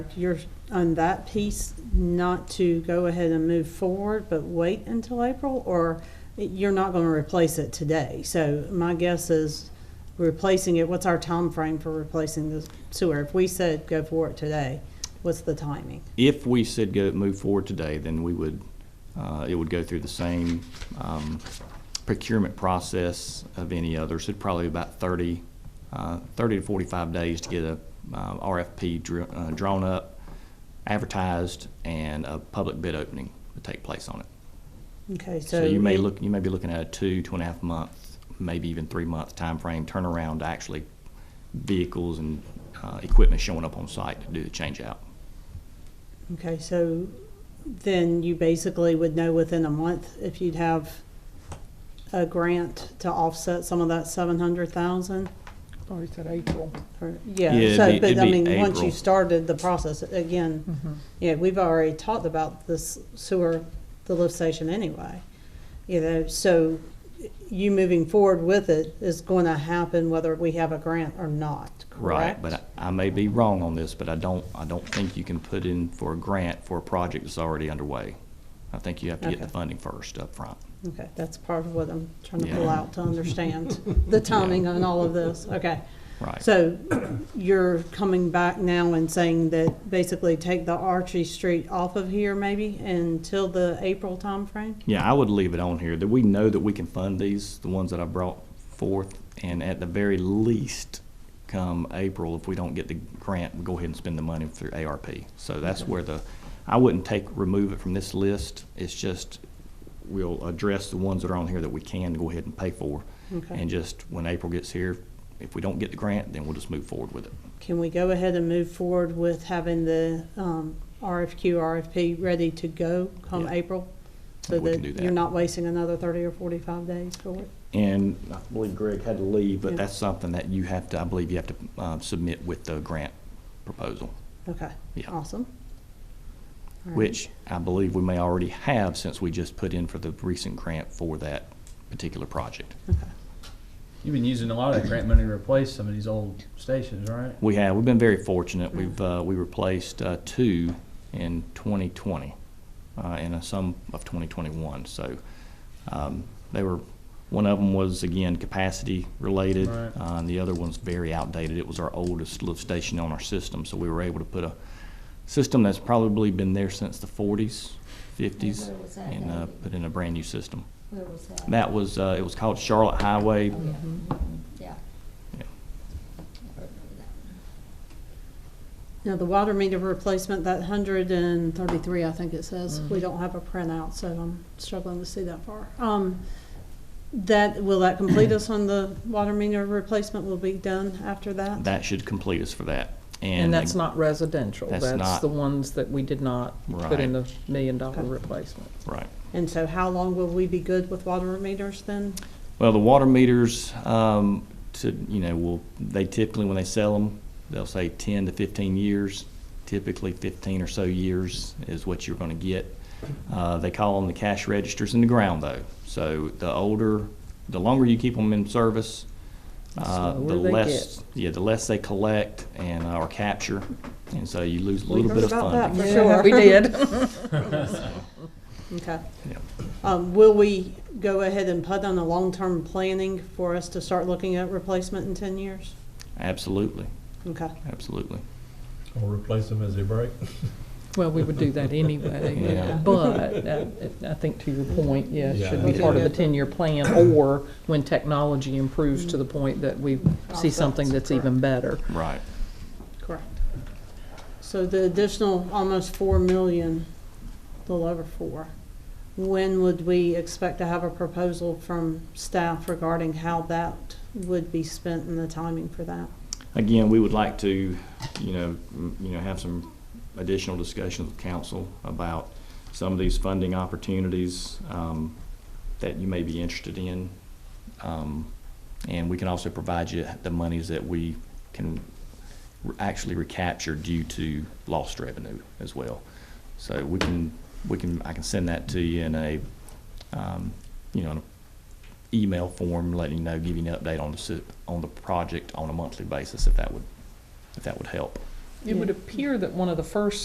You're on that piece, not to go ahead and move forward, but wait until April, or you're not going to replace it today? So my guess is replacing it, what's our time frame for replacing the sewer? If we said go for it today, what's the timing? If we said go, move forward today, then we would, uh, it would go through the same um, procurement process of any other. So it'd probably about 30, uh, 30 to 45 days to get a uh, RFP dr- uh, drawn up, advertised, and a public bid opening would take place on it. Okay, so. So you may we- look, you may be looking at a two, two and a half month, maybe even three month timeframe turnaround to actually vehicles and uh, equipment showing up on site to do the change out. Okay, so then you basically would know within a month if you'd have a grant to offset some of that seven hundred thousand? Oh, he said April. Or- Yeah, Yeah, it'd so, be- but it'd I be mean, once you April. started the process, again, Mm-hmm. yeah, we've already talked about this sewer, the lift station anyway. You know, so you moving forward with it is going to happen whether we have a grant or not, correct? Right, but I I may be wrong on this, but I don't, I don't think you can put in for a grant for a project that's already underway. I think you have to get the Okay. funding first up front. Okay, that's part of what I'm trying to pull Yeah. out to understand the timing on all of this, okay. Right. So you're coming back now and saying that basically take the Archie Street off of here maybe until the April timeframe? Yeah, I would leave it on here, that we know that we can fund these, the ones that I brought forth, and at the very least, come April, if we don't get the grant, we'll go ahead and spend the money through ARP. So that's where the, I wouldn't take, remove it from this list, it's just, we'll address the ones that are on here that we can go ahead and pay for. Okay. And just, when April gets here, if we don't get the grant, then we'll just move forward with it. Can we go ahead and move forward with having the um, RFQ, RFP ready to go come Yeah. April? Yeah, So we can do that that. you're not wasting another thirty or forty-five days for it? And I believe Greg had to leave, Yeah. but that's something that you have to, I believe you have to, uh, submit with the grant proposal. Okay, Yeah. awesome. Mm-hmm. All right. which I believe we may already have since we just put in for the recent grant for that particular project. Mm-hmm. You've been using a lot of that grant money to replace some of these old stations, right? We have, we've been very Mm-hmm. fortunate. We've, uh, we replaced, uh, two in twenty twenty, uh, and a sum of twenty twenty-one, so, um, they were, one of them was, again, capacity related. Right. Uh, and the other one's very outdated. It was our oldest lift station on our system, so we were able to put a system that's probably been there since the forties, fifties, where was that and, uh, at? put in a brand-new system. Where was that? That was, uh, it was called Charlotte Highway. Oh, yeah. Mhm. Yeah. Yeah. I remember that Now, the water meter replacement, that hundred and thirty-three, I think it says, Mm-hmm. we don't have a printout, so I'm struggling to see that far. Um, that, will that complete us on the water meter replacement will be done after that? That should complete us for that. And that's like, not residential. That's That's not- the ones that we did not put in the million dollar Okay. replacement. Right. And so how long will we be good with water meters then? Well, the water meters, um, to, you know, will, they typically, when they sell them, they'll say ten to fifteen years. Typically fifteen or so years is what you're gonna get. Uh, they call them the cash registers in the ground though. So the older, the longer you keep them in service, uh, So the where they less, yeah, the less they collect and, uh, or capture. And so you lose a little bit of about that funding. For sure. We did. Okay. Yeah. Um, will we go ahead and put on a long-term planning for us to start looking at replacement in ten years? Absolutely, Okay, absolutely. Or replace them as they break. Well, we would do that anyway, Yeah. but uh, I think to your point, yeah, it should be Yeah. part of the ten-year plan or when technology improves to the point that we see something that's even better. Right. correct. So the additional almost four million, a little over four, when would we expect to have a proposal from staff regarding how that would be spent and the timing for that? Again, we would like to, you know, m- you know, have some additional discussions with council about some of these funding opportunities um, that you may be interested in. Um, And we can also provide you the monies that we can re- actually recapture due to lost revenue as well. So we can, we can, I can send that to you in a, um, you know, in a email form, letting you know, giving you an update on the, si- on the project on a monthly basis, if that would, if that would help. It would appear that one of the first